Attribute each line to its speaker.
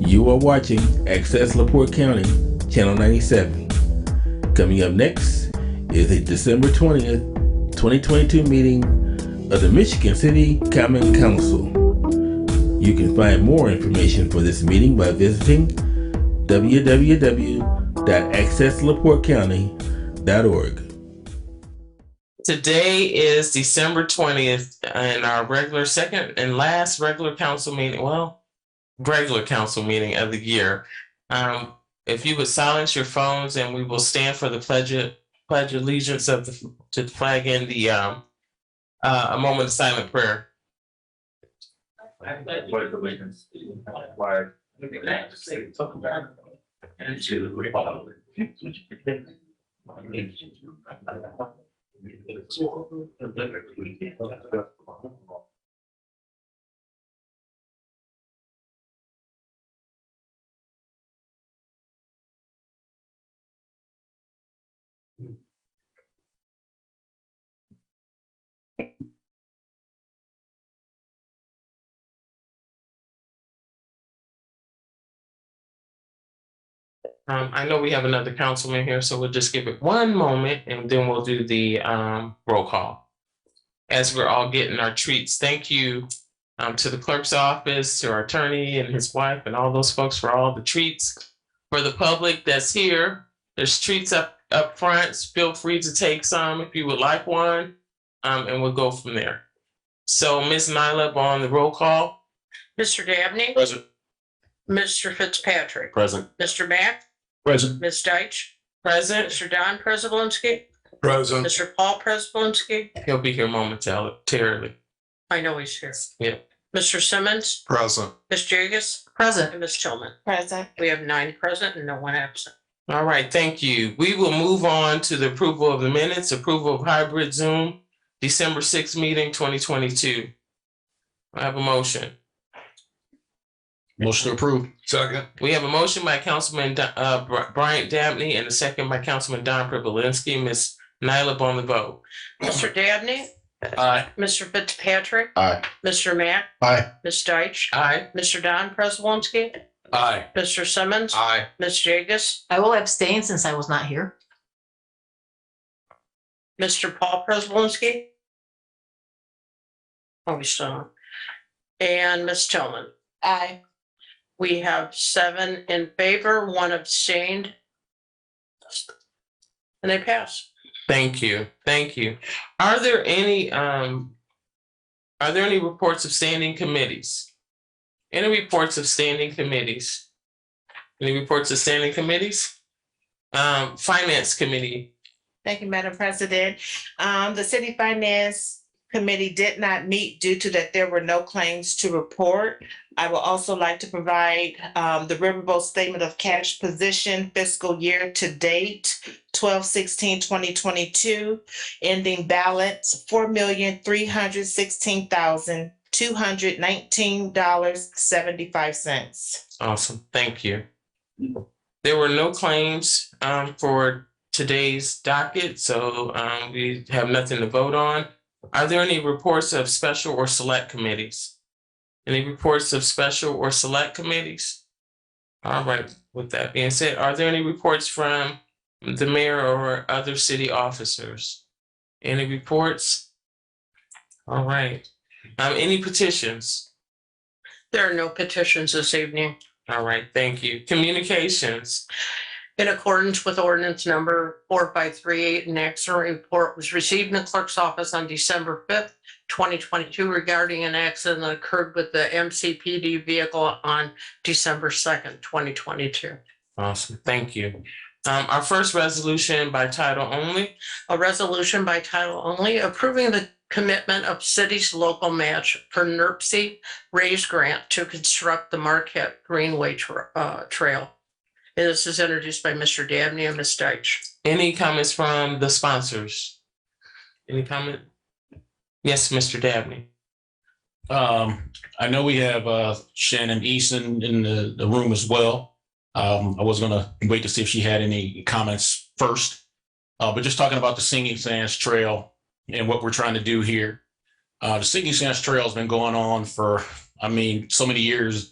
Speaker 1: You are watching Access LaPorte County, Channel 97. Coming up next is the December 20th, 2022 meeting of the Michigan City Common Council. You can find more information for this meeting by visiting www.accesslaportecounty.org.
Speaker 2: Today is December twentieth, and our regular second and last regular council meeting, well, regular council meeting of the year. Um, if you would silence your phones and we will stand for the pledge, pledge allegiance of the, to the flag and the, um, uh, a moment of silent prayer.
Speaker 3: I pledge allegiance to the flag of the United States of America and to the republic.
Speaker 2: Um, I know we have another councilman here, so we'll just give it one moment and then we'll do the, um, roll call. As we're all getting our treats, thank you, um, to the clerk's office, to our attorney and his wife and all those folks for all the treats. For the public that's here, there's treats up, up front. Feel free to take some if you would like one. Um, and we'll go from there. So Ms. Nyla on the roll call.
Speaker 4: Mr. Dabney,
Speaker 5: Present.
Speaker 4: Mr. Fitzpatrick,
Speaker 5: Present.
Speaker 4: Mr. Mack,
Speaker 5: Present.
Speaker 4: Ms. Deitch,
Speaker 2: Present,
Speaker 4: Mr. Don Prespolinski,
Speaker 5: Present.
Speaker 4: Mr. Paul Prespolinski.
Speaker 2: he'll be here momentarily.
Speaker 4: I know he's here.
Speaker 2: Yeah.
Speaker 4: Mr. Simmons,
Speaker 5: Present.
Speaker 4: Ms. Jagus. Present. And Ms. Tillman.
Speaker 6: Present.
Speaker 4: We have nine present and no one absent.
Speaker 2: All right, thank you. We will move on to the approval of the minutes, approval of hybrid Zoom, December sixth meeting, twenty twenty-two. I have a motion.
Speaker 5: Motion approved. Second.
Speaker 2: We have a motion by Councilman Da- uh, Br- Bryant Dabney and a second by Councilman Don Privilinski. Ms. Nyla on the vote.
Speaker 4: Mr. Dabney,
Speaker 5: Aye.
Speaker 4: Mr. Fitzpatrick,
Speaker 5: Aye.
Speaker 4: Mr. Mack,
Speaker 5: Aye.
Speaker 4: Ms. Deitch,
Speaker 2: Aye.
Speaker 4: Mr. Don Prespolinski,
Speaker 5: Aye.
Speaker 4: Mr. Simmons,
Speaker 5: Aye.
Speaker 4: Ms. Jagus,
Speaker 6: I will abstain since I was not here.
Speaker 4: Mr. Paul Prespolinski. Oh, he's still on. And Ms. Tillman.
Speaker 6: Aye.
Speaker 4: We have seven in favor, one abstained. And they pass.
Speaker 2: Thank you, thank you. Are there any, um, are there any reports of standing committees? Any reports of standing committees? Any reports of standing committees? Um, Finance Committee,
Speaker 7: Thank you, Madam President. Um, the City Finance Committee did not meet due to that there were no claims to report. I will also like to provide, um, the Riverboat Statement of Cash Position fiscal year to date, 2022, ending balance four million, three hundred sixteen thousand, two hundred nineteen dollars, seventy-five cents.
Speaker 2: awesome, thank you. There were no claims, um, for today's docket, so, um, we have nothing to vote on. Are there any reports of special or select committees? Any reports of special or select committees? All right, with that being said, are there any reports from the mayor or other city officers? Any reports? All right, um, any petitions?
Speaker 4: There are no petitions this evening.
Speaker 2: All right, thank you. Communications,
Speaker 4: In accordance with ordinance number four five three eight, an accident report was received in the clerk's office on December fifth, twenty twenty-two regarding an accident that occurred with the MCPD vehicle on December second, twenty twenty-two.
Speaker 2: awesome, thank you. Um, our first resolution by title only,
Speaker 4: A resolution by title only approving the commitment of city's local match for NERC raise grant to construct the Marquette Greenway Tra- uh, Trail. And this is introduced by Mr. Dabney and Ms. Deitch.
Speaker 2: any comments from the sponsors? Any comment? Yes, Mr. Dabney.
Speaker 5: Um, I know we have, uh, Shannon Easton in the, the room as well. Um, I was gonna wait to see if she had any comments first. Uh, but just talking about the Singing Sands Trail and what we're trying to do here. Uh, the Singing Sands Trail's been going on for, I mean, so many years,